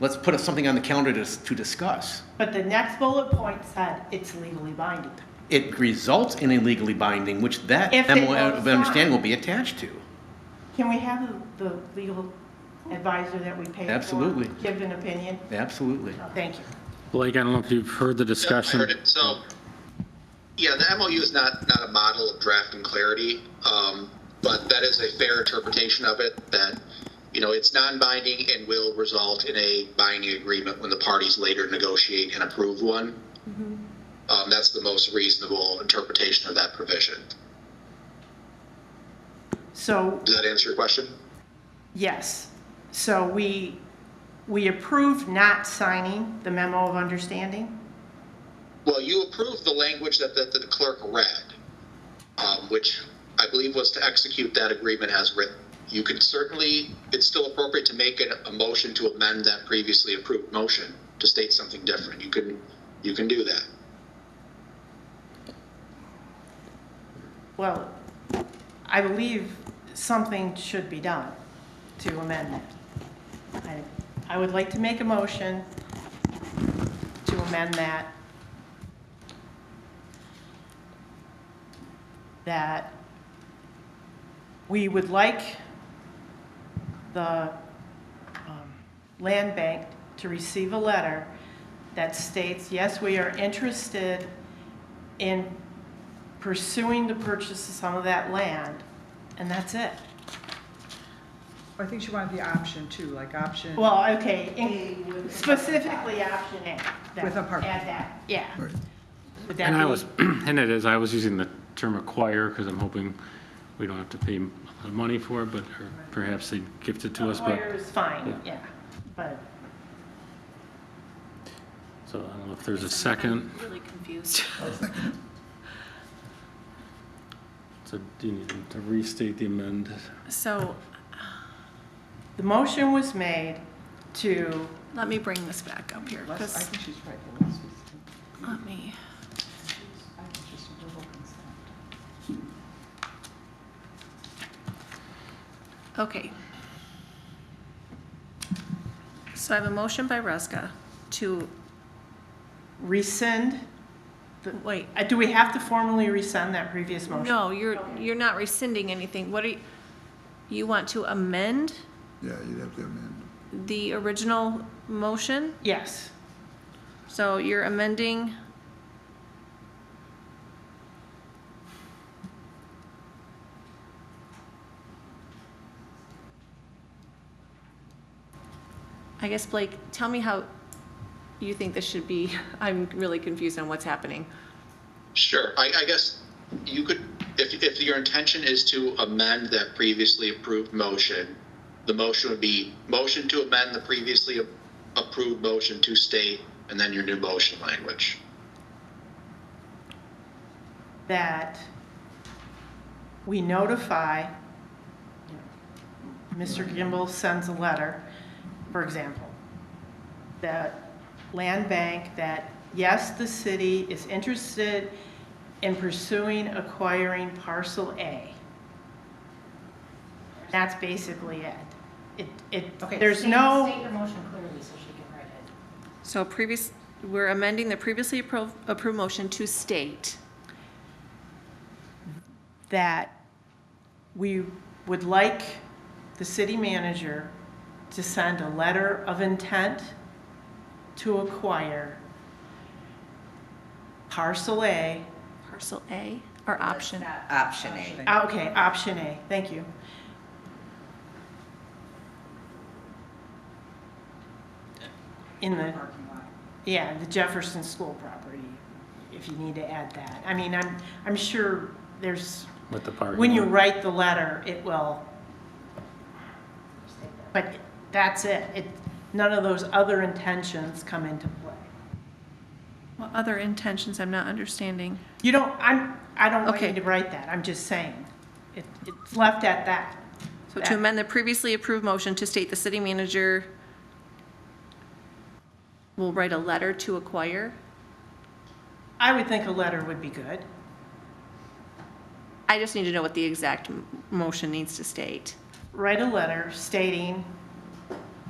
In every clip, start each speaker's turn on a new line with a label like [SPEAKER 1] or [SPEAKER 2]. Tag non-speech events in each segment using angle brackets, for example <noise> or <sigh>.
[SPEAKER 1] Let's put something on the calendar to, to discuss.
[SPEAKER 2] But the next bullet point said it's legally binding.
[SPEAKER 1] It results in a legally binding, which that
[SPEAKER 2] If they
[SPEAKER 1] MOU
[SPEAKER 2] both
[SPEAKER 1] of
[SPEAKER 2] sign.
[SPEAKER 1] understanding will be attached to.
[SPEAKER 2] Can we have the the legal advisor that we paid for?
[SPEAKER 1] Absolutely.
[SPEAKER 2] Give an opinion?
[SPEAKER 1] Absolutely.
[SPEAKER 2] Thank you.
[SPEAKER 3] Blake, I don't know if you've heard the
[SPEAKER 4] Yeah, I
[SPEAKER 3] discussion.
[SPEAKER 4] heard it. So, yeah, the MOU is not, not a model of draft and clarity, um, but that is a fair interpretation of it, that, you know, it's non-binding and will result in a binding agreement when the parties later negotiate and approve one. Um, that's the most reasonable interpretation of that provision.
[SPEAKER 2] So,
[SPEAKER 4] Does that answer your question?
[SPEAKER 2] yes, so we, we approved not signing the memo of understanding?
[SPEAKER 4] Well, you approved the language that, that the clerk read, um, which I believe was to execute that agreement as written. You could certainly, it's still appropriate to make an, a motion to amend that previously approved motion to state something different. You can, you can do that.
[SPEAKER 2] Well, I believe something should be done to amend that. I- I would like to make a motion to amend that, that we would like the um, land bank to receive a letter that states, yes, we are interested in pursuing the purchase of some of that land, and that's it.
[SPEAKER 5] I think she wanted the option too, like option.
[SPEAKER 2] Well, okay, in- specifically option A. that-
[SPEAKER 5] With a park.
[SPEAKER 2] Add that, yeah. Would that
[SPEAKER 3] And I
[SPEAKER 2] be-
[SPEAKER 3] was, <clears throat> and it is, I was using the term acquire because I'm hoping we don't have to pay m- money for it, but or perhaps they gift it to us,
[SPEAKER 2] Lawyer
[SPEAKER 3] but,
[SPEAKER 2] is fine, yeah, but,
[SPEAKER 3] so I don't know if there's a second.
[SPEAKER 6] really confused. <laughs>
[SPEAKER 3] So do you need to restate the amend?
[SPEAKER 6] So
[SPEAKER 2] the motion was made to,
[SPEAKER 6] let me bring this back up here,
[SPEAKER 5] Let's- I
[SPEAKER 6] because,
[SPEAKER 5] think she's right, but let's just,
[SPEAKER 6] let me,
[SPEAKER 5] I think just a verbal consent.
[SPEAKER 6] okay. So I have a motion by Reska to,
[SPEAKER 2] rescind,
[SPEAKER 6] wait,
[SPEAKER 2] uh, do we have to formally rescind that previous motion?
[SPEAKER 6] no, you're, you're not rescinding anything. What are, you- you want to amend
[SPEAKER 7] Yeah, you'd have to amend.
[SPEAKER 6] the original motion?
[SPEAKER 2] Yes,
[SPEAKER 6] So you're amending. I guess Blake, tell me how you think this should be. <laughs> I'm really confused on what's happening.
[SPEAKER 4] Sure, I, I guess you could, if, if your intention is to amend that previously approved motion, the motion would be, motion to amend the previously a- approved motion to state, and then your new motion language.
[SPEAKER 2] that we notify, you know, Mr. Gimbel sends a letter, for example, that land bank, that yes, the city is interested in pursuing acquiring parcel A. That's basically it. It, it, there's no.
[SPEAKER 6] So previous, we're amending the previously appro- approved motion to state.
[SPEAKER 2] that we would like the city manager to send a letter of intent to acquire parcel A,
[SPEAKER 6] Parcel A or option?
[SPEAKER 8] Option A.
[SPEAKER 2] ah, okay, option A, thank you. In the, yeah, the Jefferson School property, if you need to add that. I mean, I'm, I'm sure there's
[SPEAKER 3] With the parking.
[SPEAKER 2] when you
[SPEAKER 3] lot.
[SPEAKER 2] write the letter, it will. But that's it. It, none of those other intentions come into play.
[SPEAKER 6] What other intentions I'm not understanding?
[SPEAKER 2] You don't, I'm, I don't want you
[SPEAKER 6] Okay.
[SPEAKER 2] to write that. I'm just saying. It, it's left at that.
[SPEAKER 6] So to amend the previously approved motion to state the city manager will write a letter to acquire?
[SPEAKER 2] I would think a letter would be good.
[SPEAKER 6] I just need to know what the exact m- motion needs to state.
[SPEAKER 2] Write a letter stating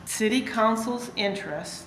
[SPEAKER 2] city council's interest